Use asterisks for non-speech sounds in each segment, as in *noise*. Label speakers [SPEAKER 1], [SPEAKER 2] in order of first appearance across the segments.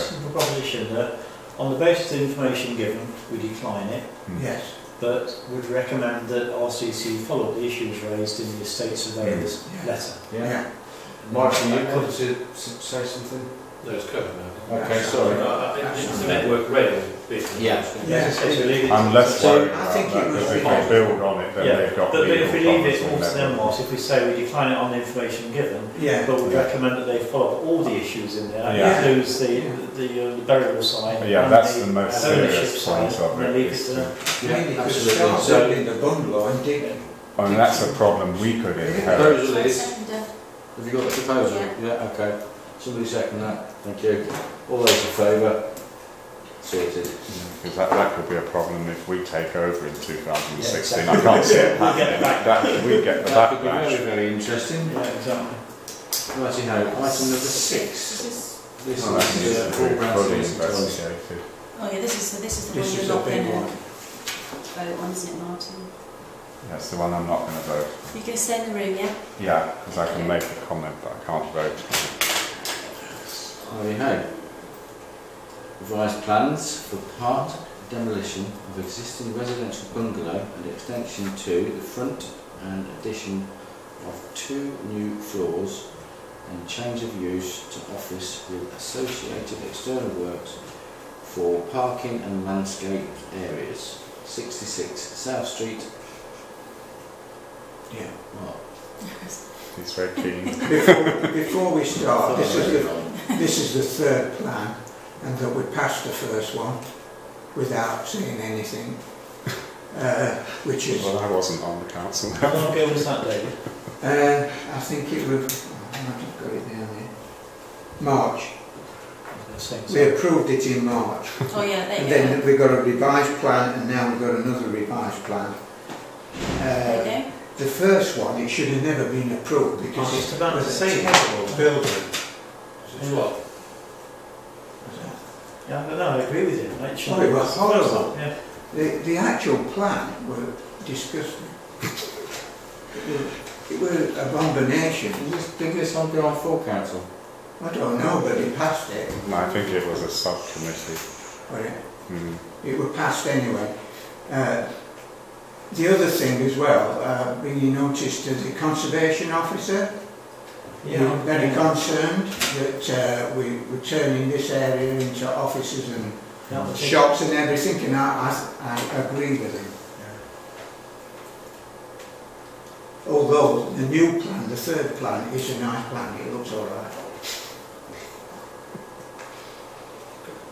[SPEAKER 1] Simple proposition that, on the basis of the information given, we decline it,
[SPEAKER 2] Yes,
[SPEAKER 1] but would recommend that RCC follow up the issues raised in the estate surveyor's
[SPEAKER 2] Mm. Yeah.
[SPEAKER 1] letter.
[SPEAKER 2] yeah.
[SPEAKER 3] Martin, you could say, say something?
[SPEAKER 4] No, it's covered now.
[SPEAKER 3] Okay,
[SPEAKER 4] No,
[SPEAKER 3] sorry.
[SPEAKER 4] I- I- It's the network rail bit.
[SPEAKER 3] Yeah.
[SPEAKER 2] Yes.
[SPEAKER 1] Okay, so leave it-
[SPEAKER 5] I'm less
[SPEAKER 1] so-
[SPEAKER 5] worried
[SPEAKER 2] I
[SPEAKER 5] about
[SPEAKER 2] think
[SPEAKER 5] that,
[SPEAKER 2] it was
[SPEAKER 5] because if
[SPEAKER 2] revised.
[SPEAKER 5] they build on it, then
[SPEAKER 1] Yeah,
[SPEAKER 5] they've got
[SPEAKER 1] But but if we
[SPEAKER 5] legal
[SPEAKER 1] leave it
[SPEAKER 5] problems
[SPEAKER 1] all to
[SPEAKER 5] with
[SPEAKER 1] them,
[SPEAKER 5] that.
[SPEAKER 1] what, if we say we decline it on the information given,
[SPEAKER 2] Yeah,
[SPEAKER 1] but would recommend that they follow up all the issues in there,
[SPEAKER 5] Yeah.
[SPEAKER 1] includes the,
[SPEAKER 2] Yeah.
[SPEAKER 1] the, uh, the burial side.
[SPEAKER 5] Yeah,
[SPEAKER 1] and
[SPEAKER 5] that's the most
[SPEAKER 1] ownership
[SPEAKER 5] serious
[SPEAKER 1] side,
[SPEAKER 5] point of
[SPEAKER 1] and then
[SPEAKER 5] it.
[SPEAKER 1] leave
[SPEAKER 5] is
[SPEAKER 1] to
[SPEAKER 5] to-
[SPEAKER 1] them.
[SPEAKER 2] maybe you could
[SPEAKER 3] Absolutely.
[SPEAKER 2] start
[SPEAKER 3] So-
[SPEAKER 2] building the bungalow and dig.
[SPEAKER 5] I mean, that's a problem we could inherit.
[SPEAKER 3] Proposal is,
[SPEAKER 6] Second, uh,
[SPEAKER 3] have you got the proposal?
[SPEAKER 6] Yeah.
[SPEAKER 3] Yeah, okay. Somebody second that, thank you. All those in favour? Sorted.
[SPEAKER 5] Because that, that could be a problem if we take over in 2016.
[SPEAKER 3] Yeah,
[SPEAKER 5] I can't see it
[SPEAKER 1] We'll get
[SPEAKER 5] happening.
[SPEAKER 1] the back-
[SPEAKER 5] That, we get the
[SPEAKER 3] That could be
[SPEAKER 5] backlash.
[SPEAKER 3] very, very interesting.
[SPEAKER 1] Yeah, exactly.
[SPEAKER 3] Righty ho, item number
[SPEAKER 6] is
[SPEAKER 3] six.
[SPEAKER 6] this-
[SPEAKER 3] This is
[SPEAKER 5] Oh, that needs
[SPEAKER 3] uh,
[SPEAKER 5] to
[SPEAKER 3] all
[SPEAKER 5] be
[SPEAKER 3] round
[SPEAKER 5] fully
[SPEAKER 3] solicitors.
[SPEAKER 5] investigated.
[SPEAKER 6] Oh yeah, this is the, this is the
[SPEAKER 2] This is
[SPEAKER 6] one you're
[SPEAKER 2] the
[SPEAKER 6] not
[SPEAKER 2] big
[SPEAKER 6] going
[SPEAKER 2] one.
[SPEAKER 6] to vote on, isn't it, Martin?
[SPEAKER 5] That's the one I'm not going to vote.
[SPEAKER 6] You're going to stay in the room, yeah? *laughs*
[SPEAKER 5] Yeah, because I can make a comment, but I can't vote.
[SPEAKER 3] Righty ho. Revised plans for part demolition of existing residential bungalow and extension to the front and addition of two new floors and change of use to office with associated external works for parking and landscape areas. 66 South Street,
[SPEAKER 2] Yeah.
[SPEAKER 3] Mark.
[SPEAKER 5] He's very keen.
[SPEAKER 2] Before, before we start, this is the, this is the third plan, and that we passed the first one without saying anything, uh, which is, uh,
[SPEAKER 5] Well, I wasn't on the council. *laughs*
[SPEAKER 1] How long ago was that, David?
[SPEAKER 2] uh, I think it was, I might have got it down here, March. We approved it in March.
[SPEAKER 6] Oh yeah, there
[SPEAKER 2] And
[SPEAKER 6] you go.
[SPEAKER 2] then uh, we've got a revised plan and now we've got another revised plan. Uh,
[SPEAKER 6] There you
[SPEAKER 2] the first one, it should have never been approved because it's was a terrible building.
[SPEAKER 4] It's what?
[SPEAKER 1] Yeah, I don't know, I agree with you. It should
[SPEAKER 2] Oh, it
[SPEAKER 1] be-
[SPEAKER 2] was horrible.
[SPEAKER 1] Yeah.
[SPEAKER 2] The, the actual plan were disgusting. It was it were abomination.
[SPEAKER 3] Did this, did this on BI4 Council?
[SPEAKER 2] I don't know, but it passed it.
[SPEAKER 5] I think it was a subcommittee.
[SPEAKER 2] But it,
[SPEAKER 5] Mm.
[SPEAKER 2] it were passed anyway. Uh, the other thing as well, uh, bringing notice to the conservation officer, Yeah, I'm very concerned that uh, we, we're turning this area into offices and
[SPEAKER 1] That was it.
[SPEAKER 2] shops and everything, and I, I, I agree with him. Although the new plan, the third plan, is a nice plan, it looks all right.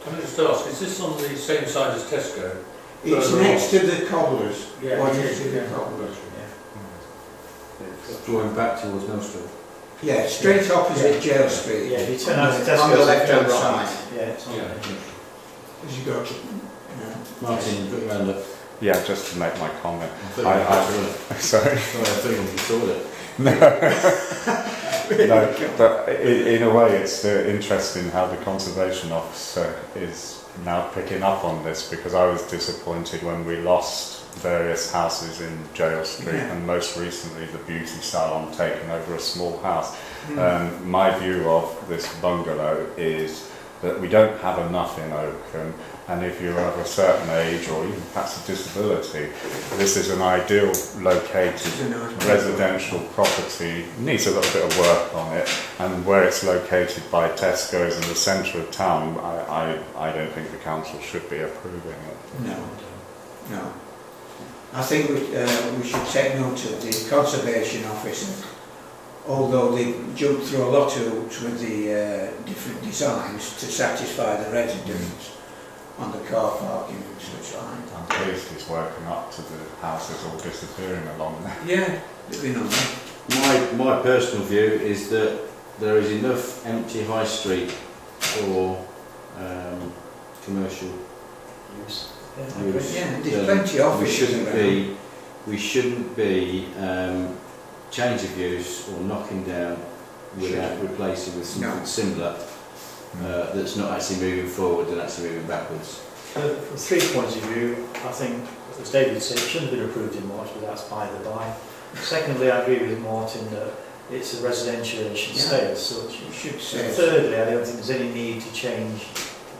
[SPEAKER 4] Can I just ask, is this on the same side as Tesco?
[SPEAKER 2] It's
[SPEAKER 4] Further
[SPEAKER 2] next to the cobblers,
[SPEAKER 4] Yeah,
[SPEAKER 2] what
[SPEAKER 4] it
[SPEAKER 2] is
[SPEAKER 4] is,
[SPEAKER 2] it, the
[SPEAKER 4] yeah.
[SPEAKER 2] cobblers?
[SPEAKER 3] Drawing back towards Mill Street.
[SPEAKER 2] Yeah, straight opposite Jail Street.
[SPEAKER 1] Yeah, if you turn out to Tesco.
[SPEAKER 2] On the left-hand side,
[SPEAKER 1] Yeah, it's on
[SPEAKER 4] Yeah.
[SPEAKER 1] there.
[SPEAKER 2] as you go to, you
[SPEAKER 3] Martin, put your hand up.
[SPEAKER 5] Yeah, just to make my comment. *laughs*
[SPEAKER 3] I thought you
[SPEAKER 5] I- I-
[SPEAKER 3] were-
[SPEAKER 5] Sorry.
[SPEAKER 3] Sorry, I think you saw it.
[SPEAKER 5] No, but i- in a way, it's uh, interesting how the conservation officer is now picking up on this because I was disappointed when we lost various houses in Jail Street
[SPEAKER 2] Yeah.
[SPEAKER 5] and most recently the beauty salon taking over a small house.
[SPEAKER 2] know.
[SPEAKER 5] Um, my view of this bungalow is that we don't have enough in Oakham and if you're of a certain age or even perhaps a disability, this is an ideal located
[SPEAKER 2] It's a nice plan.
[SPEAKER 5] residential property needs a little bit of work on it and where it's located by Tesco's in the centre of town I, I, I don't think the council should be approving it.
[SPEAKER 2] No. No. I think we, uh, we should take note of the conservation officer, although they jumped through a lot of hoops with the uh, different designs to satisfy the residents on the car parking and such like.
[SPEAKER 5] I'm pleased he's working up to the houses all disappearing along there.
[SPEAKER 2] Yeah. They've been on that.
[SPEAKER 3] My, my personal view is that there is enough empty high street for um, commercial.
[SPEAKER 1] Use. Yeah, I
[SPEAKER 3] Use.
[SPEAKER 1] agree.
[SPEAKER 2] Yeah, there's
[SPEAKER 3] Um,
[SPEAKER 2] plenty of
[SPEAKER 3] We
[SPEAKER 2] offices
[SPEAKER 3] shouldn't
[SPEAKER 2] around.
[SPEAKER 3] be, we shouldn't be um, change of use or knocking down without replacing with something
[SPEAKER 2] No.
[SPEAKER 3] similar uh, that's not actually moving forward and actually moving backwards.
[SPEAKER 1] Uh, From three points of view, I think, as David said, it shouldn't have been approved in March, but that's by the by. Secondly, I agree with Martin that it's a residential and should stay as such.
[SPEAKER 2] You should say.
[SPEAKER 1] Thirdly, I don't think there's any need to change